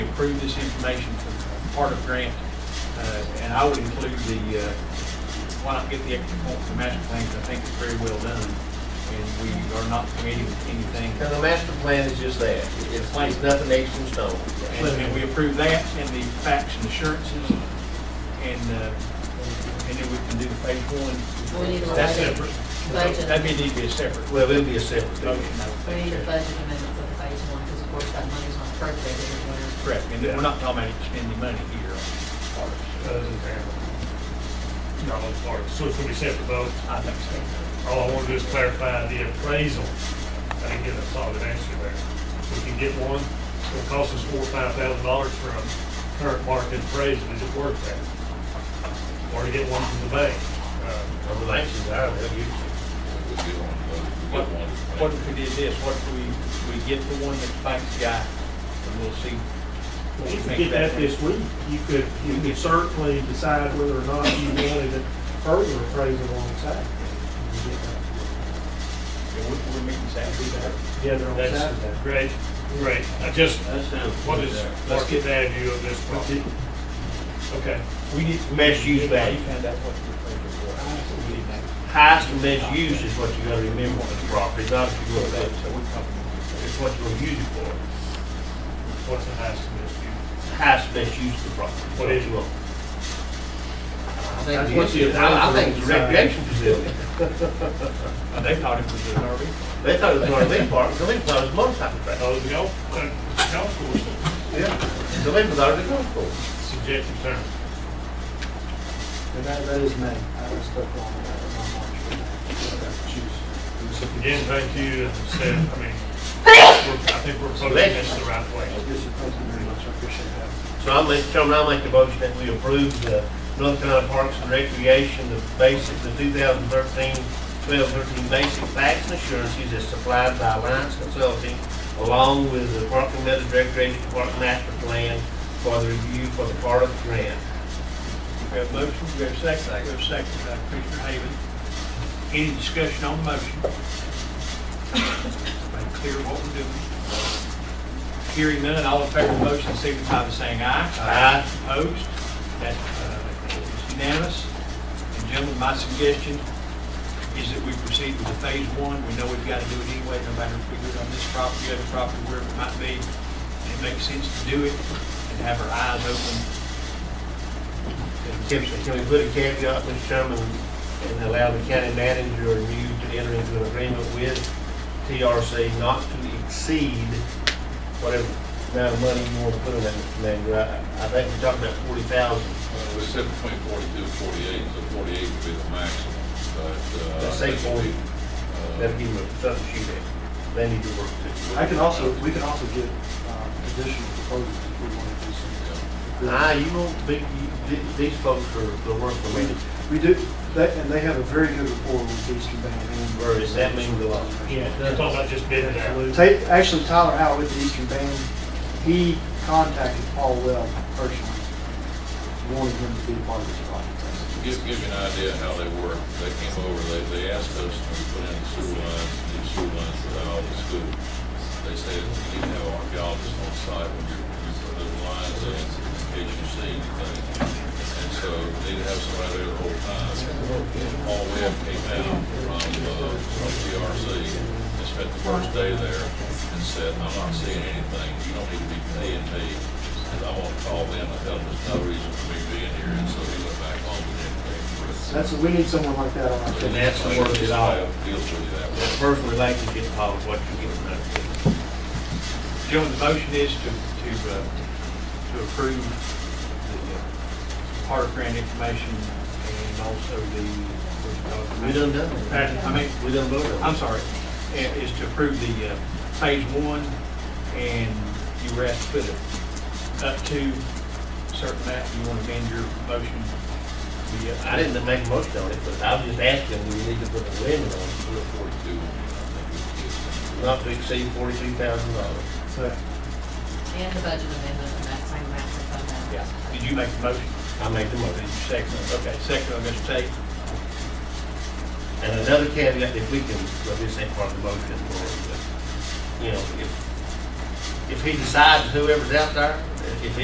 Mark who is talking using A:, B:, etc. A: approve this information for part of grant. Uh, And I would include the, uh, why not get the extra point for master plan, 'cause I think it's very well done. And we are not committing anything.
B: Because the master plan is just that. It's, it's nothing extra in stone.
A: And and we approve that and the facts and assurances. And, uh, and then we can do the phase one.
C: We need a
A: That's
C: budget.
A: separate.
C: Budget.
A: That'd be, need to be a separate
B: Well, it'll be a separate
A: motion,
B: motion.
A: I would
C: We
A: think.
C: need a budget amendment for the phase one, because of course that money's not appropriated anywhere.
A: Correct, and we're not talking about spending money here on parks.
D: Those in favor? Not on the part, so it's gonna be separate vote.
A: uh, I think so.
D: All I wanna do is clarify the appraisal. I didn't get a solid answer there. We can get one, it'll cost us four, or five thousand dollars for a current market appraisal, is it worth that? Or to get one from the bank. Uh,
B: I'm anxious, I will give you.
A: What, what if we did this, what if we, we get the one that's bank's got, and we'll see. what we
E: You could
A: think
E: get
A: about
E: that this week. You could, you could certainly decide whether or not you wanted a further appraisal on Saturday. You get
A: Yeah, we- We're meeting Saturday.
E: that Together on Saturday.
D: That's great, great. I just,
A: That sounds.
D: what is
A: Let's get
D: market
A: that.
D: value of this property? Okay.
B: We need best
A: You
B: use value.
A: found out what you're for. We need that.
B: Highest and best use is what you gotta remember on this property, not if you go
A: So
B: back.
A: we're comfortable.
B: It's what you're gonna use it for.
D: What's the highest and best use?
B: Highest and best use of the property.
D: What is it?
B: I think it's, I I think it's a recreation facility.
A: They thought it was an RV.
B: They thought it was an RV park, so they thought it was a motorcycle track.
D: Oh, the golf, uh, golf course,
B: Yeah. So they thought it was a golf course.
D: subjective term.
E: And that, that is May. I was stuck on that. I'm
D: Again, thank you, as I said, I mean, we're- I think we're putting this the right way.
E: Thank you very much. I appreciate that.
B: So I'll make, Chairman, I'll make the motion that we approve the North Carolina Parks and Recreation, the basic, the 2013, 12, 13 basic facts and assurances as supplied by Alliance Consulting, along with the Park and Meadows Recreation Park Master Plan for the review for the part of the grant.
A: We have a motion, we have a second, we have a second by Commissioner Haven. Any discussion on the motion? Make clear what we're doing. Hearing none, all in favor of the motion signify by saying aye.
B: Aye.
A: Opposed? That uh, is unanimous. And gentlemen, my suggestion is that we proceed with the phase one. We know we've got to do it anyway, no matter if we do it on this property, other property, wherever it might be. It makes sense to do it and have our eyes open.
B: Can can we put a caveat, Mr. Chairman, and allow the county manager or you to enter into an agreement with TRC not to exceed whatever amount of money you want to put in that, Mr. Manager? I, I think we're talking about forty thousand.
F: Uh, We said between forty-two and forty-eight, so forty-eight would be the maximum, but. uh,
B: Let's say 40.
F: uh,
B: That'll give them something to shoot at. They need to work too.
E: I can also, we can also get um, additional proposals if we want to do some.
B: Ah, you won't be, you- th- these folks are, they're working
E: We do-
B: with
E: We do, they- and they have a very good rapport with Eastern Band. and-
B: Whereas that means a lot.
D: Yeah, it's all about just bidding it out.
E: Ta- Actually, Tyler Howell with the Eastern Band, he contacted Paul Weld personally, wanted him to be a part of this
F: To
E: project.
F: Give, give you an idea how they work, they came over, they, they asked us, and we put in the sewer lines, new sewer lines for all the school. They said, you need to have archaeologists on site when you, you put those lines in, in case you see anything. And so they need to have somebody there the whole time. All we have came out from, uh, from PRC, and spent the first day there, and said, I'm not seeing anything, you don't need to be paying me, and I want to call them, I tell them there's no reason for me being here, and so he went back home and didn't pay for it.
E: That's, we need someone like that on our
B: And
E: team.
B: that's the work it all.
F: Deals with you that
B: The
F: way.
B: first relationship part is what you get from that.
A: Gentlemen, the motion is to, to, uh, to approve the uh, park grant information and also the, what
B: We
A: do you call
B: done
A: it?
B: done it.
A: I mean,
B: We done voted on
A: I'm
B: it.
A: sorry, i- is to approve the uh, phase one, and you were asked to put it up to certain amount, you want to amend your motion? The, uh,
B: I didn't make a motion on it, but I was just asking, do we need to put a limit on it?
F: Forty-two, I
B: Not to exceed forty-two thousand dollars.
E: So,
C: And the budget amendment, and that same amount for fund balance.
A: Yeah, did you make the uh, motion?
B: I make the
A: Did
B: motion.
A: you second it? Okay, second, I'm going to take.
B: And another caveat, if we can, well, this ain't part of the motion, or, you know, if, if he decides whoever's out there,